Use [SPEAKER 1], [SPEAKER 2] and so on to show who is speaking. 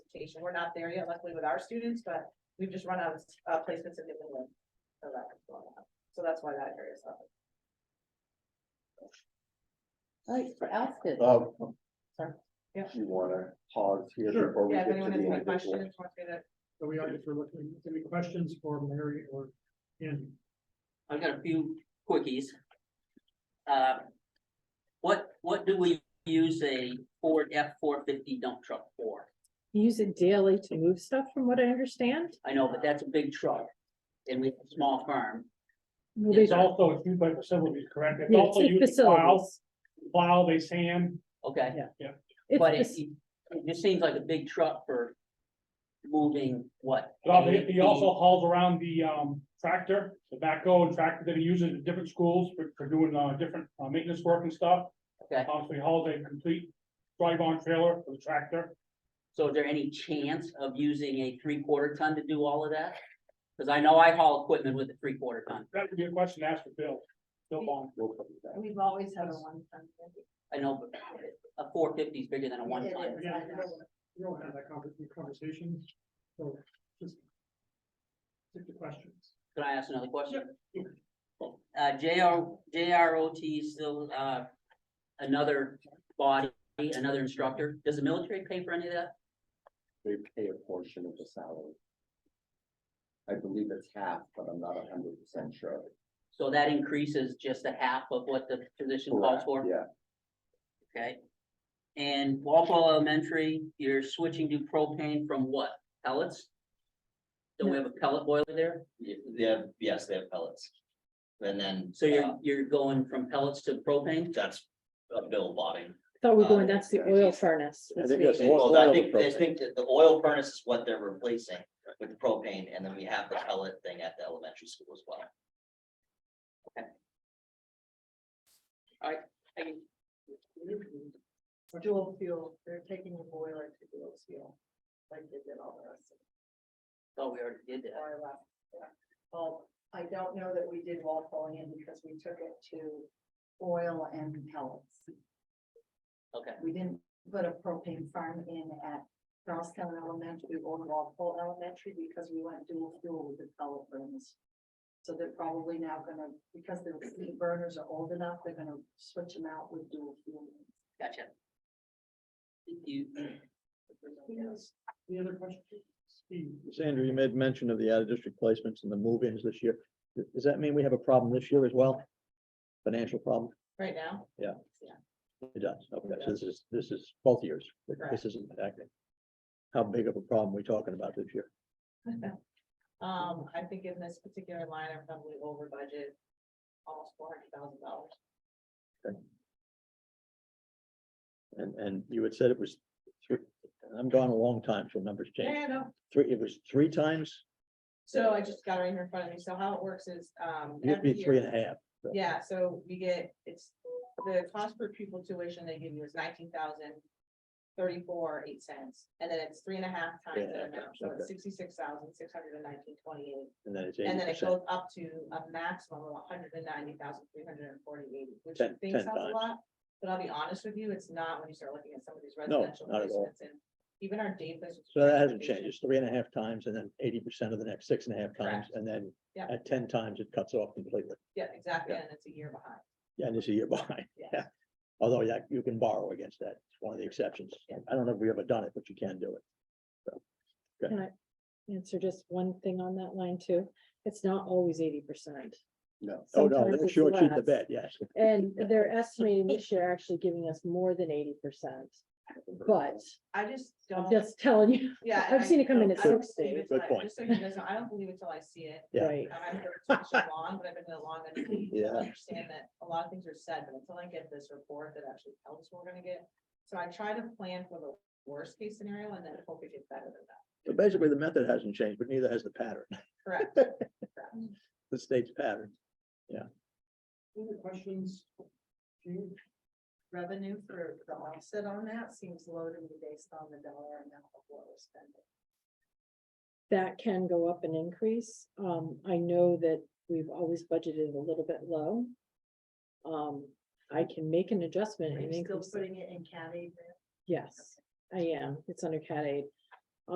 [SPEAKER 1] transportation. We're not there yet, luckily with our students, but we've just run out of uh, placements in New England. So that's going on. So that's why that area is up.
[SPEAKER 2] All right, for Alston,
[SPEAKER 3] Um,
[SPEAKER 1] Sorry. Yeah.
[SPEAKER 3] You wanna pause here
[SPEAKER 4] Sure.
[SPEAKER 3] before we
[SPEAKER 1] Yeah,
[SPEAKER 3] get
[SPEAKER 1] if
[SPEAKER 3] to
[SPEAKER 1] anyone has
[SPEAKER 3] the
[SPEAKER 1] any
[SPEAKER 3] individual?
[SPEAKER 1] questions, want me to
[SPEAKER 4] Are we on for looking, any questions for Mary or Andy?
[SPEAKER 5] I've got a few quickies. Uh, What, what do we use a Ford F four fifty dump truck for?
[SPEAKER 2] you use it daily to move stuff from what I understand?
[SPEAKER 5] I know, but that's a big truck. And we have a small firm.
[SPEAKER 2] Well,
[SPEAKER 5] Yes,
[SPEAKER 4] It's
[SPEAKER 2] they-
[SPEAKER 5] sir.
[SPEAKER 4] also, it's used by facilities, correct? It's
[SPEAKER 2] yeah, It's
[SPEAKER 4] also used
[SPEAKER 2] it's
[SPEAKER 4] to plow,
[SPEAKER 2] facilities.
[SPEAKER 4] plow, they sand,
[SPEAKER 5] Okay,
[SPEAKER 2] It's
[SPEAKER 5] but it,
[SPEAKER 2] fac-
[SPEAKER 5] it just seems like a big truck for moving what?
[SPEAKER 4] Well, they- he
[SPEAKER 5] 18?
[SPEAKER 4] also hauls around the, um, tractor, the backhoe and tractor that he uses at different schools for, for doing, uh, different, uh, maintenance work and stuff.
[SPEAKER 5] Okay.
[SPEAKER 4] Um, so he hauls a complete drive-on trailer for the tractor.
[SPEAKER 5] So is there any chance of using a three quarter ton to do all of that? Cause I know I haul equipment with a three quarter ton.
[SPEAKER 4] That would be a question to ask for Bill, Bill Bond.
[SPEAKER 3] We'll come to that.
[SPEAKER 6] We've always had a one time.
[SPEAKER 5] I know, but a four fifty is bigger than a one ton.
[SPEAKER 6] is, I know.
[SPEAKER 4] We don't have that conversation, so just. Stick to questions.
[SPEAKER 5] Can I ask another question? Uh, JR, JROT is still, uh, another body, another instructor. Does the military pay for any of that?
[SPEAKER 3] They pay a portion of the salary. I believe it's half, but I'm not hundred percent sure.
[SPEAKER 5] So that increases just a half of what the position calls
[SPEAKER 3] Correct,
[SPEAKER 5] for,
[SPEAKER 3] Yeah,
[SPEAKER 5] okay? And Walpole Elementary, you're switching to propane from what? Pellets? Don't we have a pellet boiler there?
[SPEAKER 7] Y- They have, yes, they have pellets. And then.
[SPEAKER 5] So
[SPEAKER 7] uh,
[SPEAKER 5] you're, you're going from pellets to propane?
[SPEAKER 7] That's a bill botting.
[SPEAKER 2] Thought we we're going, that's the oil furnace.
[SPEAKER 3] I
[SPEAKER 2] that's
[SPEAKER 3] think
[SPEAKER 2] what-
[SPEAKER 3] that's- Oil-
[SPEAKER 7] Well, I
[SPEAKER 3] oil
[SPEAKER 7] think, I
[SPEAKER 3] propane.
[SPEAKER 7] think that the oil furnace is what they're replacing with propane, and then we have the pellet thing at the elementary school as well.
[SPEAKER 6] Dual fuel, they're taking a boiler to dual fuel, like they did all the rest of
[SPEAKER 5] Oh, we already did
[SPEAKER 6] the
[SPEAKER 5] that.
[SPEAKER 6] oil left. yeah. Well, I don't know that we did Walpole in because we took it to oil and pellets.
[SPEAKER 5] Okay.
[SPEAKER 6] We didn't put a propane farm in at Charlestown Elementary or Walpole Elementary because we went dual fuel with the pellet burns. So they're probably now gonna, because the heat burners are old enough, they're gonna switch them out with dual fuel.
[SPEAKER 5] Gotcha. Thank you.
[SPEAKER 6] Yes.
[SPEAKER 4] Any other questions? Steve?
[SPEAKER 8] Sandra, you made mention of the out of district placements and the move-ins this year. Th- Does that mean we have a problem this year as well? Financial problem?
[SPEAKER 1] right now.
[SPEAKER 8] It does. Okay, so this is, this is both years. but
[SPEAKER 1] Correct.
[SPEAKER 8] This isn't acting. How big of a problem we talking about this year?
[SPEAKER 1] Um, I think in this particular line, I'm probably over budget, almost four hundred thousand dollars.
[SPEAKER 8] And, and you had said it was three, I'm gone a long time, so numbers change.
[SPEAKER 1] Yeah, no,
[SPEAKER 8] Three, it was three times?
[SPEAKER 1] so I just got it right here in front of me. So how it works is, um.
[SPEAKER 8] It'd be
[SPEAKER 1] every year-
[SPEAKER 8] three and a half. So-
[SPEAKER 1] Yeah, so you get, it's, the cost per pupil tuition they give you is nineteen thousand thirty-four, eight cents, and then it's three and a half times
[SPEAKER 8] Yeah,
[SPEAKER 1] that amount, so it's
[SPEAKER 8] okay.
[SPEAKER 1] sixty-six thousand, six hundred and nineteen, twenty-eight.
[SPEAKER 8] And then it's
[SPEAKER 1] And
[SPEAKER 8] eighty
[SPEAKER 1] then it goes
[SPEAKER 8] percent.
[SPEAKER 1] up to a maximum of hundred and ninety thousand, three hundred and forty-eight, which you
[SPEAKER 8] Ten-
[SPEAKER 1] think
[SPEAKER 8] ten
[SPEAKER 1] sounds a
[SPEAKER 8] times.
[SPEAKER 1] lot. But I'll be honest with you, it's not when you start looking at some of these
[SPEAKER 8] No,
[SPEAKER 1] residential
[SPEAKER 8] not at all.
[SPEAKER 1] placements and even our day placements.
[SPEAKER 8] So that
[SPEAKER 1] transportation.
[SPEAKER 8] hasn't changed. It's three and a half times and then eighty percent of the next six and a half times. And then
[SPEAKER 1] Yeah.
[SPEAKER 8] at ten times, it cuts off completely.
[SPEAKER 1] Yeah, exactly,
[SPEAKER 8] Yeah.
[SPEAKER 1] and it's a year behind.
[SPEAKER 8] Yeah, and it's a year behind.
[SPEAKER 1] Yeah.
[SPEAKER 8] Yeah. Although that you can borrow against that. It's one of the exceptions.
[SPEAKER 1] Yeah.
[SPEAKER 8] I don't know if we ever done it, but you can do it.
[SPEAKER 2] Answer just one thing on that line too. It's not always eighty percent.
[SPEAKER 3] no.
[SPEAKER 8] Oh, no,
[SPEAKER 2] Sometimes
[SPEAKER 8] they're
[SPEAKER 2] it's
[SPEAKER 8] short shooting the
[SPEAKER 2] less.
[SPEAKER 8] bed, yes.
[SPEAKER 2] And they're estimating this year actually giving us more than eighty percent, but
[SPEAKER 1] I just
[SPEAKER 2] I'm
[SPEAKER 1] don't.
[SPEAKER 2] just telling you,
[SPEAKER 1] Yeah.
[SPEAKER 2] I've seen it come in at
[SPEAKER 1] I don't believe
[SPEAKER 2] 60.
[SPEAKER 1] it till
[SPEAKER 8] Good
[SPEAKER 1] I-
[SPEAKER 8] point.
[SPEAKER 1] Just so you guys know, I don't believe it till I see it.
[SPEAKER 8] Yeah.
[SPEAKER 2] right?
[SPEAKER 1] And I've been doing this so long, but I've been doing it long enough to
[SPEAKER 8] Yeah.
[SPEAKER 1] Understand that a lot of things are said, but until I get this report that actually tells us what we're gonna get. So I try to plan for the worst case scenario and then hope it gets better than that.
[SPEAKER 8] So basically, the method hasn't changed, but neither has the pattern,
[SPEAKER 1] Correct.
[SPEAKER 8] the state's pattern.
[SPEAKER 4] Any other questions? Steve?
[SPEAKER 6] Revenue for the offset on that seems low to me based on the dollar amount of what we're spending.
[SPEAKER 2] that can go up and increase. Um, I know that we've always budgeted a little bit low. Um, I can make an adjustment
[SPEAKER 6] Are
[SPEAKER 2] and
[SPEAKER 6] you still
[SPEAKER 2] increase, it.
[SPEAKER 6] putting it in cat aid? then?
[SPEAKER 2] yes, I am, it's under cat aid.